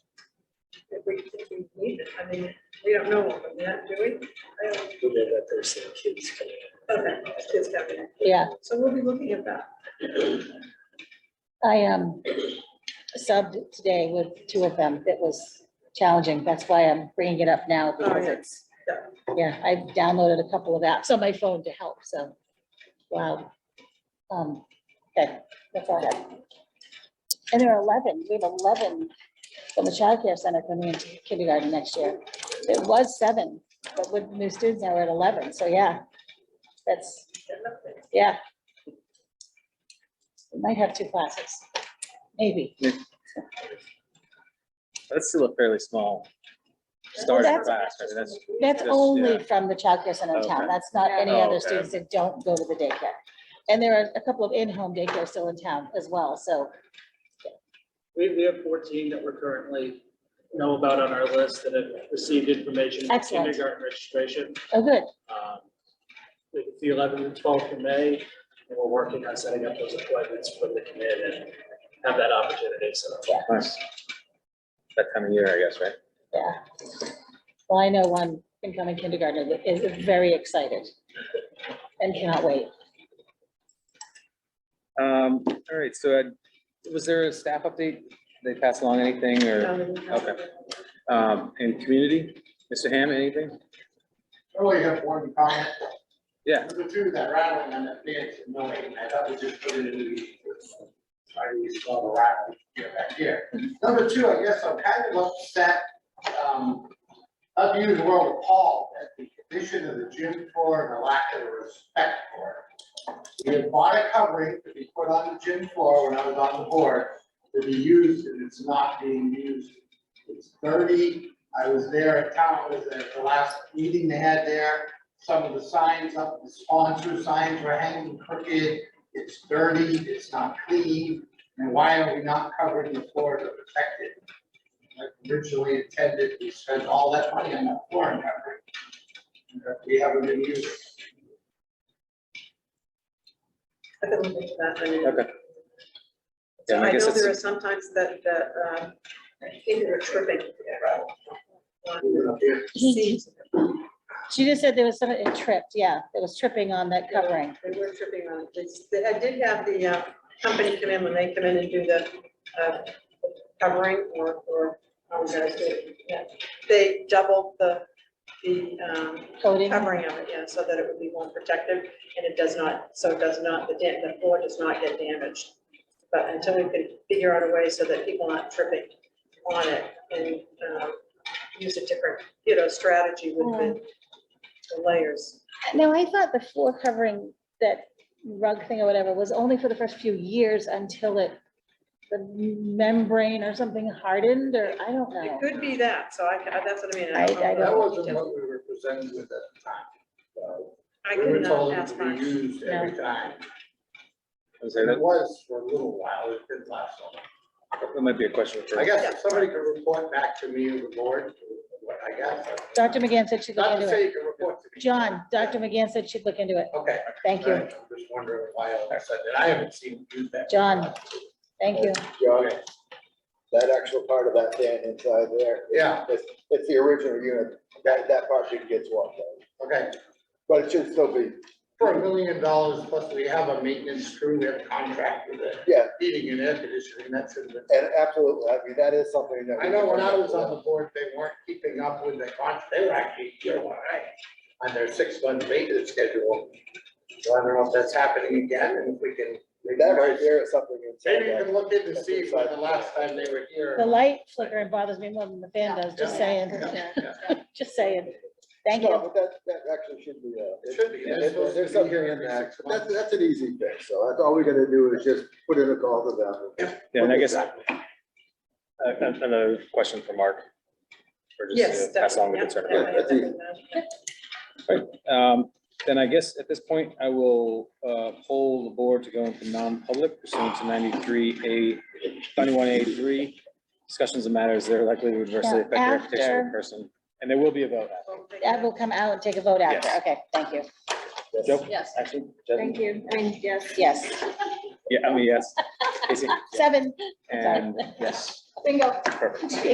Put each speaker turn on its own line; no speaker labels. we, if we need it, I mean, we don't know what we're not doing. I don't-
Who did that? There's some kids coming in.
Okay, it's just happening.
Yeah,
So we'll be looking at that.
I um subbed today with two of them. It was challenging. That's why I'm bringing it up now
Oh,
because
Oh, yeah.
it's, yeah, I downloaded a couple of apps on my phone to help, so. Wow. Um, okay, that's all I have. And there are eleven, we have eleven from the childcare center coming into kindergarten next year. It was seven, but with new students now we're at eleven, so yeah. That's, yeah. We might have two classes, maybe.
That's still a fairly small
Well,
starting
that's-
class. I mean, that's,
That's
Just-
only
yeah.
from the childcare center in town.
Okay.
That's not any
Oh,
other
okay.
students that don't go to the daycare. And there are a couple of in-home daycares still in town as well, so,
We, we have fourteen that we're currently know about on our list that have received information. for
Excellent.
Kindergarten registration.
oh, good.
Um, The the 11th and 12th of May, and we're working on setting up those appointments for the committee and have that opportunity, so.
nice. That time of year, I guess, right?
Yeah. Well, I know one incoming kindergartner that is very excited and cannot wait.
Um, all right, so uh, was there a staff update? They pass along anything or,
Okay.
um, in community? Mr. Hammond, anything?
I only have one comment.
Yeah.
The two that rattling on that fence and knowing, I thought we just put in a new. I really saw the rattling here back here. Number two, I guess I'm kind of upset, um, unusual appalled at the condition of the gym floor and the lack of respect for it. We had bought a covering to be put on the gym floor when I was on the board to be used and it's not being used. It's dirty. I was there at town, was at the last meeting they had there some of the signs up, the sponsor signs were hanging crooked, it's dirty, it's not clean, and why are we not covering the floor to protect it? Like originally intended, we spent all that money on that floor and covering. and that We haven't been using.
I can look into that. and-
Okay.
So
Yeah, I
I
guess
know there are
it's,
sometimes that, that, um, I think they're tripping.
Mm-hmm.
He- She just said there was someone, it tripped, yeah, it was tripping on that covering.
They were tripping on it. It's- they- I did have the uh, company come in when they come in and do the uh, covering or, or, how was that, yeah. They doubled the, the um,
Coding,
covering of it, yeah, so that it would be more protective and it does not, so it does not, the dam, the floor does not get damaged. But until we could figure out a way so that people aren't tripping on it and um, use a different, you know, strategy with the- the layers.
Now, I thought the floor covering, that rug thing or whatever, was only for the first few years until it, the membrane or something hardened, or I don't know.
It could be that, so I, ca- that's what I mean.
Uh, I-
don't know
I
the
don't-
That wasn't
details.
what we were presented with at the time. So,
I
We were
can uh,
told
ask
it to be
Mark.
used every time,
was there
and it
that
was for a little while, it didn't last so long.
that might be a question for.
I guess if somebody could report back to me and the board, what I guess.
Dr. McGann said she'd look
Not to
into it.
say you can report to me.
John, Dr. McGann said she'd look into it.
Okay.
Thank you,
I'm just wondering why all of a sudden, I haven't seen you do that.
John. thank you.
John,
Okay,
that actual part of that fan inside there,
yeah,
it's, it's the original unit, that, that part should get swapped out.
okay.
But it should still be,
For a million dollars, plus we have a maintenance crew, we have a contract with it.
Yeah.
Heating and air conditioning, that's in the.
and absolutely, I mean, that is something that. we
I know when I
can-
was on the board, they weren't keeping up with the contract, they were actually, you know, I, on their six-month maintenance schedule. So I don't know if that's happening again, and if we can.
That right there is something
Maybe you
inside
can
that.
look in to see if the last time they were here.
The light flickering bothers me more than the fan does, just saying, just saying. Thank
No,
you.
but that, that actually should be, uh,
It should be. They're
there- there-
supposed to
There's
be
something
here
in
every
that,
six
but that's, that's an easy fix, so that's all we gotta do is just put in a call to them.
Yeah, and I guess uh, another question for Mark. Or just,
Yes.
uh, Pass along the
definitely,
concern.
yeah,
Yeah, that's easy.
yeah.
Right, um, then I guess at this point, I will, uh, poll the board to go into non-public pursuant to ninety-three A, ninety-one A three. Discussions of matters that are likely to adversely affect the reputation of
After.
a person, and there will be a vote. after.
Well, thank
That
you.
will come out and take a vote after.
Yes.
Okay, thank you.
Joe?
Yes.
Action? Jasmine?
you. I mean, yes. Yes.
Yeah, I mean, yes. Casey?
Seven,
And, yes,
bingo.
perfect.